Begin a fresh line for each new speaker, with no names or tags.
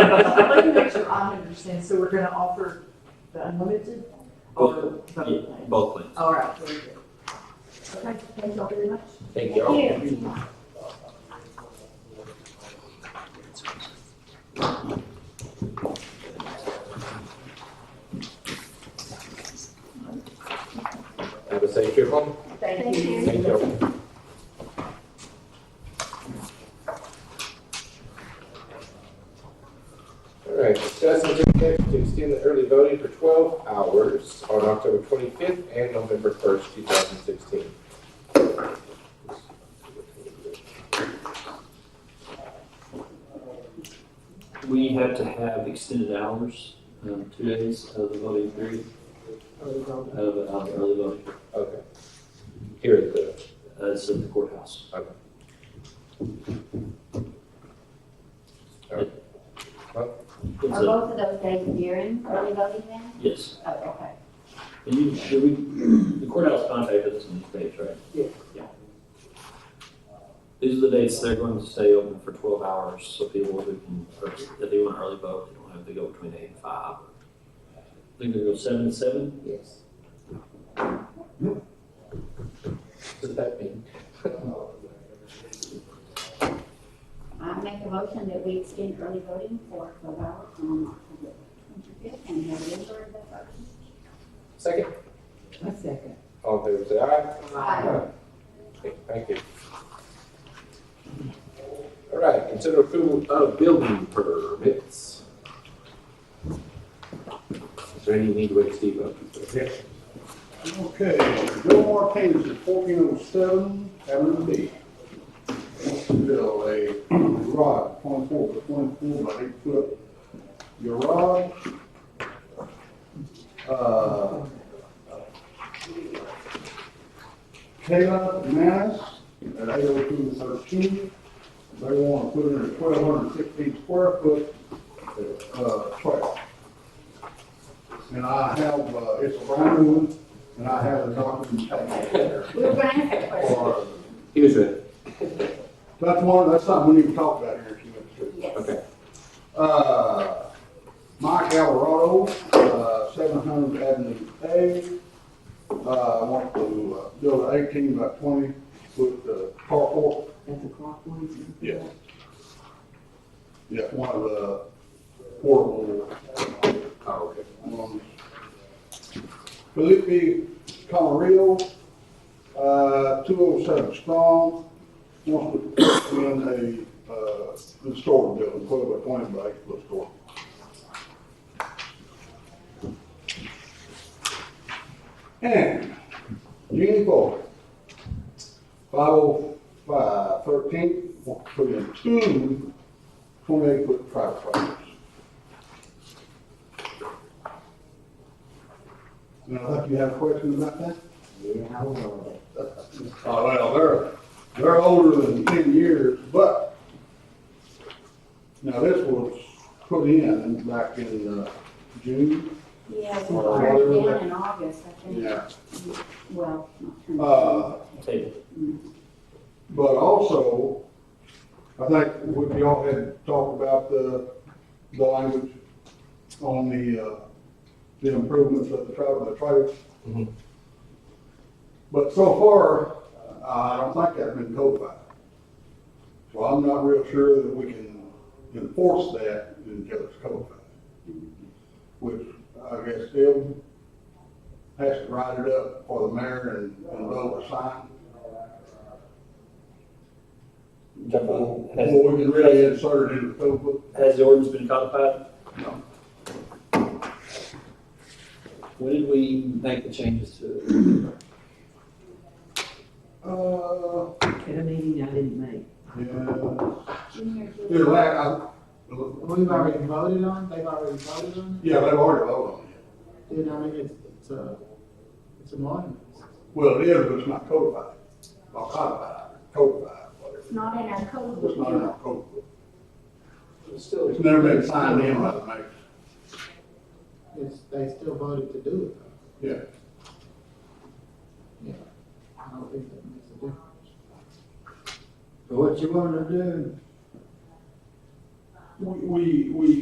I'd like to make sure I understand, so we're gonna offer the unlimited? or the-
Both plans.
All right, very good. Okay, thank y'all very much.
Thank
Have a safe trip home.
Thank you.
Thank you. All right, discuss and take action to extend the early voting for twelve hours on October twenty-fifth and November first, two thousand sixteen.
We have to have extended hours, um, two days of the voting period, of, um, early voting,
Okay. Here is the,
uh, it's at the courthouse. It's
Are
a-
both of those days during early voting then?
yes,
Oh, okay.
and you, should we, the courthouse contacted us on this page, right?
Yeah.
Yeah. These are the dates they're going to stay open for twelve hours, so people who can, or if they want early vote, they don't have to go between eight and five. I think they go seven to seven,
Yes.
what does that mean?
I make a motion that we extend early voting for twelve hours on October twenty-fifth and have it for the first.
Second,
A second.
all in favor, say aye.
Aye.
Okay, Thank you. All right, consider approval of building permits. Is there any need to wake Steve up?
Okay, Bill Marquez at fourteen oh seven, Avenue B. Wants to build a garage, twenty-four by twenty-four by eight foot garage. Uh, Kayla Manis at eight oh two thirteen, they want to put in a twelve hundred fifteen square foot, uh, track. And I have, uh, it's a brand new one, and I have a documentation.
We were gonna ask that question.
for-
He was ready.
That's one, that's something we need to talk about here in a few minutes.
Yes.
Okay.
Uh, Mike Alvarado, uh, seven hundred Avenue A. Uh, want to uh, build an eighteen by twenty foot uh, carport.
That's a clockwise.
Yeah. Yeah, one of the portable.
Oh, okay.
Um, Felipe Camarillo, uh, two oh seven Strong, wants to put in a, uh, in store building, put up a twenty by eight foot store. And Jeannie Boyd, five oh five thirteen, wants to put in two twenty-eight foot private properties. Now, if you have a question about that?
Yeah, I will.
Oh, well, they're, they're older than ten years, but now this was put in back in, uh, June.
Yeah, we were down in August, I think. Well, not turned
Uh,
table.
but also, I think we, we all had talked about the, the language on the, uh, the improvements of the travel, the trail.
Mhm.
But so far, I don't think that's been codified. So I'm not real sure that we can enforce that until it's codified. Which I guess still has to write it up for the mayor and, and vote a sign. Before before we can really insert it in the code book.
Has the ordinance been codified?
No.
When did we make the changes to
Uh,
At a meeting I didn't make.
yeah,
Junior,
yeah,
July.
la-
We've already voted on, they've already voted on
I- yeah, they've already voted on it.
it, dude, I mean, it's, it's a, it's an ordinance.
Well, it is, but it's not codified, or codified, codified, whatever.
It's not in our code.
It's not in our code book.
It's still.
It's never been signed in by the mayor.
It's, they still voted to do it, though.
Yeah,
Yeah. I don't think that makes a difference.
So what you wanna do?
we, we, we